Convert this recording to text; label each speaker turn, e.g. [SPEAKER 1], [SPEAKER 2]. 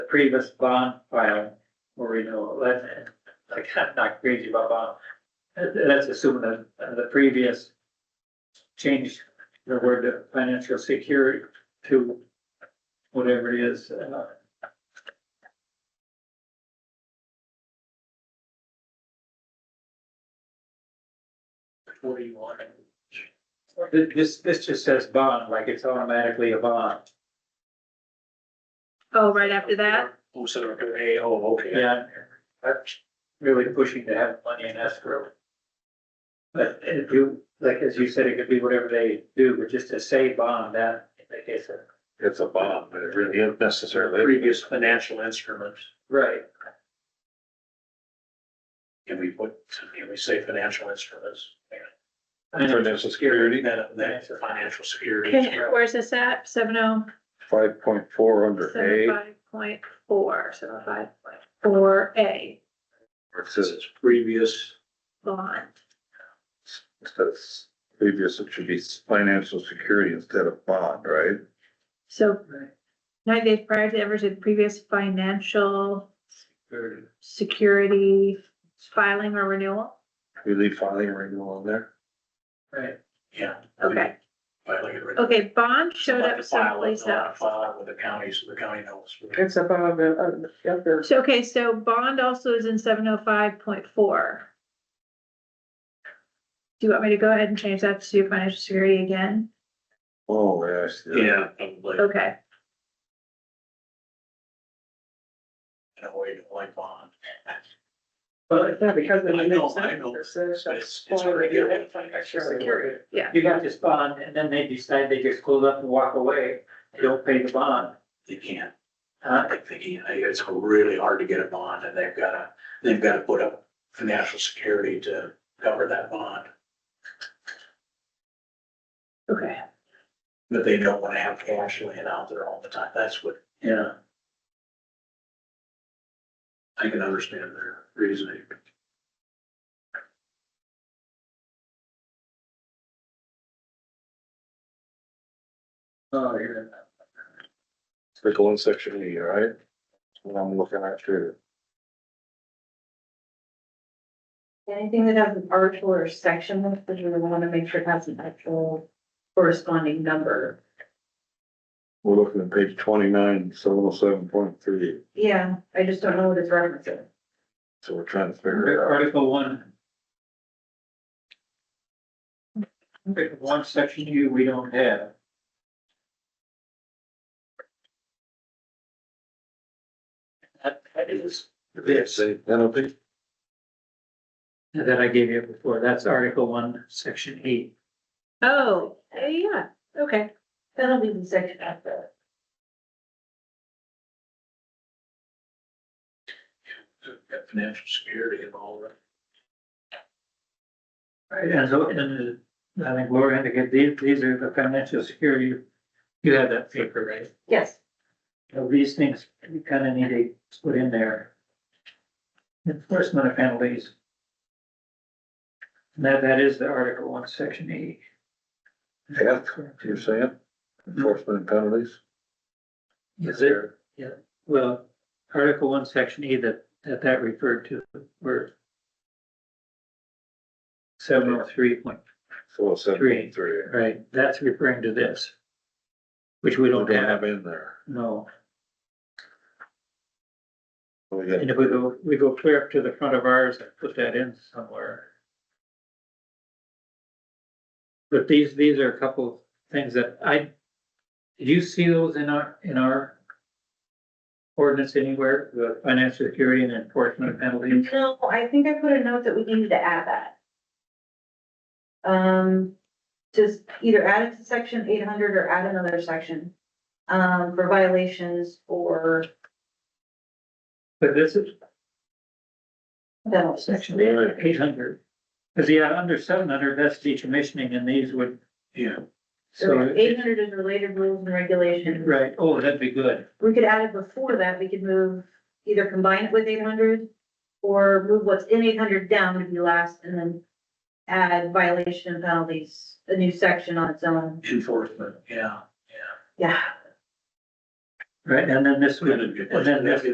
[SPEAKER 1] previous bond file or renewal, that's, like, I'm not crazy about bond. That- That's assuming that uh, the previous change, the word to financial security to whatever it is, uh, forty-one. Th- This, this just says bond, like it's automatically a bond.
[SPEAKER 2] Oh, right after that?
[SPEAKER 3] Oh, so they're gonna, hey, oh, okay.
[SPEAKER 1] Yeah, I'm really pushing to have money in escrow. But if you, like, as you said, it could be whatever they do, but just to say bond, that, I guess, uh,
[SPEAKER 4] It's a bond, but it really isn't necessarily.
[SPEAKER 3] Previous financial instruments.
[SPEAKER 1] right,
[SPEAKER 3] Can we put, can we say financial instruments?
[SPEAKER 4] Financial security,
[SPEAKER 3] That, that's a financial security.
[SPEAKER 2] Okay, where's this at? Seven oh,
[SPEAKER 4] five point four under
[SPEAKER 2] seven
[SPEAKER 4] A,
[SPEAKER 2] five point four, seven oh five point four A
[SPEAKER 4] where it
[SPEAKER 3] This
[SPEAKER 4] says,
[SPEAKER 3] is previous,
[SPEAKER 2] bond.
[SPEAKER 4] instead of s- previous, it should be s- financial security instead of bond, right?
[SPEAKER 2] So
[SPEAKER 1] right.
[SPEAKER 2] nine days prior to ever to previous financial
[SPEAKER 1] Or
[SPEAKER 2] security filing or renewal?
[SPEAKER 4] We leave filing and renewal in there.
[SPEAKER 1] Right,
[SPEAKER 3] yeah.
[SPEAKER 2] Okay,
[SPEAKER 3] Filing it.
[SPEAKER 2] okay, bond showed
[SPEAKER 3] Somebody
[SPEAKER 2] up
[SPEAKER 3] file it,
[SPEAKER 2] someplace
[SPEAKER 3] they'll have
[SPEAKER 2] else.
[SPEAKER 3] to File it with the county, so the county knows.
[SPEAKER 5] It's above, uh, uh, under,
[SPEAKER 2] So, okay, so bond also is in seven oh five point four. Do you want me to go ahead and change that to financial security again?
[SPEAKER 4] Oh, yeah, I see that.
[SPEAKER 3] Probably, in
[SPEAKER 2] Okay,
[SPEAKER 3] a way to like bond,
[SPEAKER 1] but
[SPEAKER 5] yeah, because in
[SPEAKER 3] I
[SPEAKER 5] the uh,
[SPEAKER 3] know,
[SPEAKER 5] next
[SPEAKER 3] I
[SPEAKER 5] sentence,
[SPEAKER 3] know,
[SPEAKER 5] it says
[SPEAKER 3] but
[SPEAKER 5] shall
[SPEAKER 3] it's- it's
[SPEAKER 5] form
[SPEAKER 3] regular.
[SPEAKER 5] regular financial security.
[SPEAKER 2] yeah,
[SPEAKER 1] you got this bond, and then they decide they just close up and walk away, they don't pay the bond,
[SPEAKER 3] they can't, I
[SPEAKER 1] huh?
[SPEAKER 3] think they can, it's really hard to get a bond, and they've gotta, they've gotta put up financial security to cover that bond.
[SPEAKER 2] okay.
[SPEAKER 3] But they don't wanna have cash laying out there all the time, that's what
[SPEAKER 1] Yeah,
[SPEAKER 3] I can understand their reasoning.
[SPEAKER 1] oh, yeah.
[SPEAKER 4] Click on section E, all right? That's What I'm looking at here.
[SPEAKER 6] Anything that has an article or section, because we want to make sure it has an actual corresponding number.
[SPEAKER 4] We're looking at page twenty-nine, seven oh seven point three,
[SPEAKER 6] Yeah, I just don't know what it's referencing.
[SPEAKER 4] so we're trying to figure it out.
[SPEAKER 1] Article one. Article One section U, we don't have. That, that is, This.
[SPEAKER 4] Say penalty,
[SPEAKER 1] that I gave you before, that's article one, section eight.
[SPEAKER 2] Oh, eh, yeah, okay,
[SPEAKER 6] That'll be the section after.
[SPEAKER 3] Got financial security and all that.
[SPEAKER 1] Right, and so, and uh, I think Laura indicated, these, these are the financial security, you have that paper, right?
[SPEAKER 6] Yes,
[SPEAKER 1] know, these things, you kind of need to put in there. Enforcement of penalties. And that, that is the Article one, section E.
[SPEAKER 4] Yeah, you're saying enforcement and penalties?
[SPEAKER 1] Is it, well, Article one, section E that, that that referred to were seven oh three point,
[SPEAKER 4] So it's oh seven point three.
[SPEAKER 1] right, that's referring to this. Which we
[SPEAKER 4] We
[SPEAKER 1] don't have,
[SPEAKER 4] in there.
[SPEAKER 1] no,
[SPEAKER 4] We
[SPEAKER 1] and
[SPEAKER 4] got
[SPEAKER 1] if we go, we go clear up to the front of ours and put that in somewhere. But these, these are a couple of things that I, did you see those in our, in our ordinance anywhere, the financial security and enforcement of penalties?
[SPEAKER 6] no, I think I put a note that we needed to add that. Um, just either add it to section eight hundred or add another section, um, for violations or
[SPEAKER 1] But this is
[SPEAKER 6] penalties.
[SPEAKER 1] section eight hundred. Cause yeah, under seven hundred, that's decommissioning and these would,
[SPEAKER 3] Yeah.
[SPEAKER 1] so,
[SPEAKER 6] Eight hundred is related rules and regulations.
[SPEAKER 1] right, oh, that'd be good.
[SPEAKER 6] we could add it before that, we could move, either combine it with eight hundred or move what's in eight hundred down to be last and then add violation and penalties, a new section on its own.
[SPEAKER 3] Enforcement, yeah.
[SPEAKER 6] Yeah,
[SPEAKER 1] right, and then this would,
[SPEAKER 3] That'd be a
[SPEAKER 1] and then this